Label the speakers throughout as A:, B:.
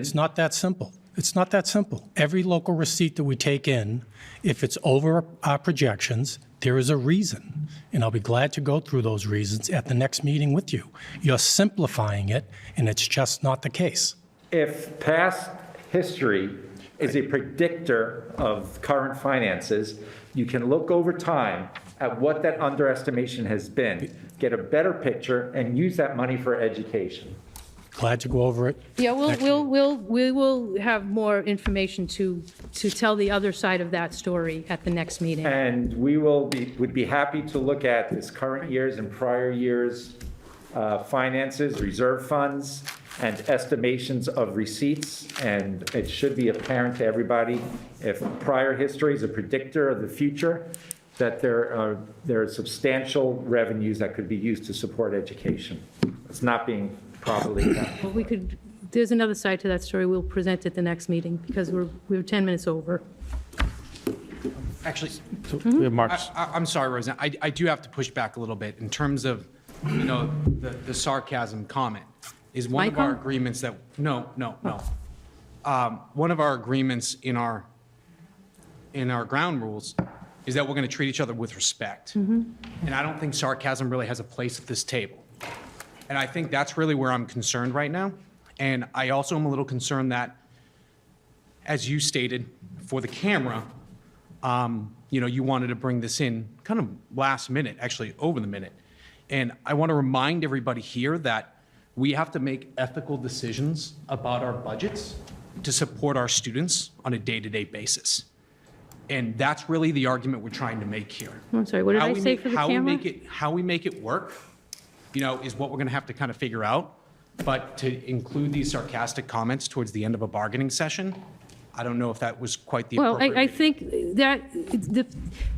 A: It's not that simple. It's not that simple. Every local receipt that we take in, if it's over our projections, there is a reason. And I'll be glad to go through those reasons at the next meeting with you. You're simplifying it, and it's just not the case.
B: If past history is a predictor of current finances, you can look over time at what that underestimation has been, get a better picture, and use that money for education.
A: Glad to go over it.
C: Yeah, we'll,
A: next
C: we'll, we'll, we will have more information to, to tell the other side of that story at the next meeting.
B: And we will be, would be happy to look at this current year's and prior year's uh, finances, reserve funds, and estimations of receipts. And it should be apparent to everybody, if prior history is a predictor of the future, that there are, there are substantial revenues that could be used to support education. It's not being properly done.
C: Well, We could, there's another side to that story, we'll present at the next meeting, because we're, we're 10 minutes over.
D: Actually, Mhm.
E: We have Mark's.
D: I, I- I'm sorry, Roseanne, I, I do have to push back a little bit in terms of, you know, the the sarcasm comment. Is one of
C: My
D: our
C: com-
D: agreements that, no, no, no. Um, One of our agreements in our, in our ground rules is that we're going to treat each other with respect. And I don't think sarcasm really has a place at this table. And I think that's really where I'm concerned right now. And I also am a little concerned that, as you stated, for the camera, um, you know, you wanted to bring this in kind of last minute, actually over the minute. And I want to remind everybody here that we have to make ethical decisions about our budgets to support our students on a day-to-day basis. And that's really the argument we're trying to make here.
C: I'm sorry, what did
D: How
C: I
D: we
C: say
D: make-
C: for the
D: how we
C: camera?
D: make it- How we make it work, you know, is what we're going to have to kind of figure out. But to include these sarcastic comments towards the end of a bargaining session, I don't know if that was quite the
C: Well,
D: appropriate.
C: I, I
D: reading.
C: think that, the-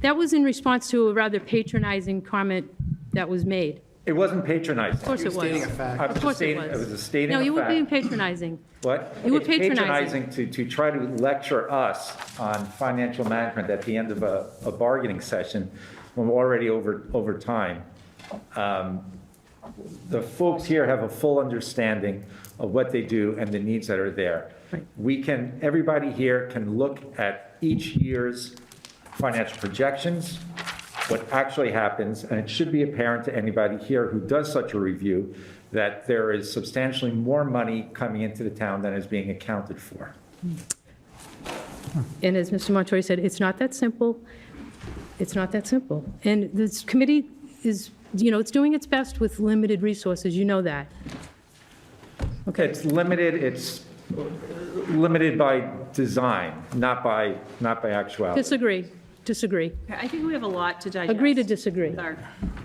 C: that was in response to a rather patronizing comment that was made.
B: It wasn't patronizing.
C: Of course it was.
B: I'm
C: Of
B: just
C: course
B: stating-
C: it was.
B: It was a stating
C: No,
B: of
C: you were
B: fact.
C: being patronizing.
B: What?
C: You were
B: It's
C: patronizing.
B: patronizing to, to try to lecture us on financial management at the end of a, a bargaining session when we're already over, over time. Um, The folks here have a full understanding of what they do and the needs that are there. We can, everybody here can look at each year's financial projections, what actually happens, and it should be apparent to anybody here who does such a review that there is substantially more money coming into the town than is being accounted for.
C: And as Mr. Montori said, it's not that simple. It's not that simple. And this committee is, you know, it's doing its best with limited resources, you know that. Okay,
B: It's limited, it's limited by design, not by, not by actuality.
C: disagree, disagree.
F: I think we have a lot to digest.
C: Agree to disagree.
F: With our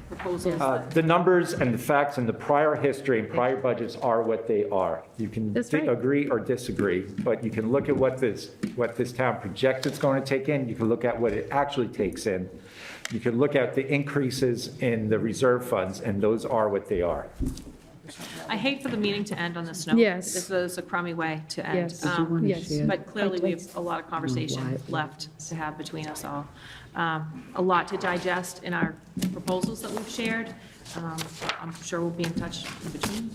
F: proposals.
B: Uh, The numbers and the facts and the prior history and prior budgets are what they are. You can
C: That's
B: di-
C: right.
B: agree or disagree, but you can look at what this, what this town projects it's going to take in, you can look at what it actually takes in, you can look at the increases in the reserve funds, and those are what they are.
F: I hate for the meeting to end on this note.
C: Yes.
F: This is a crummy way to end.
C: Yes. Did you
F: Um,
C: wanna Yes. share?
F: But clearly, we have a lot of conversation left to have between us all. Um, A lot to digest in our proposals that we've shared. Um, I'm sure we'll be in touch in between.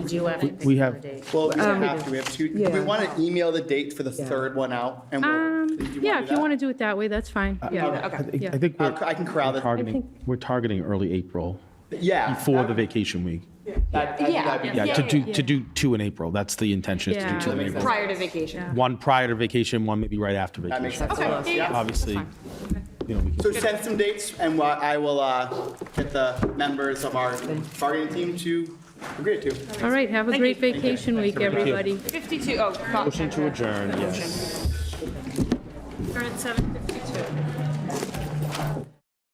G: We do have to
E: We
G: pick
E: have-
G: a date.
H: Well, we don't
C: Um,
H: have to, we have two, do we
G: yeah.
H: want to email the date for the third one out? and we'll-
C: Um,
H: do wanna
C: yeah,
H: do
C: if you
H: that?
C: want to do it that way, that's fine, yeah.
E: I think-
C: Yeah.
E: I think
H: Uh,
E: we're
H: I can corral this.
E: targeting, we're targeting early April
H: Yeah.
E: before the vacation week.
H: that- that- that'd be-
E: Yeah, to do, to do two in April. That's the intention, is to
C: Yeah.
E: do two in
H: That makes
E: April.
H: sense.
G: Prior to vacation.
E: One prior to vacation, one maybe right after
H: That makes
E: vacation.
H: sense. to us. Yeah.
E: Obviously, you know, we can
H: So send some dates and wha- I will uh, get the members of our bargaining team to agree to.
C: All right, have a great vacation week, everybody.
F: 52, oh.
E: motion to adjourn, yes.
F: We're at 7:52.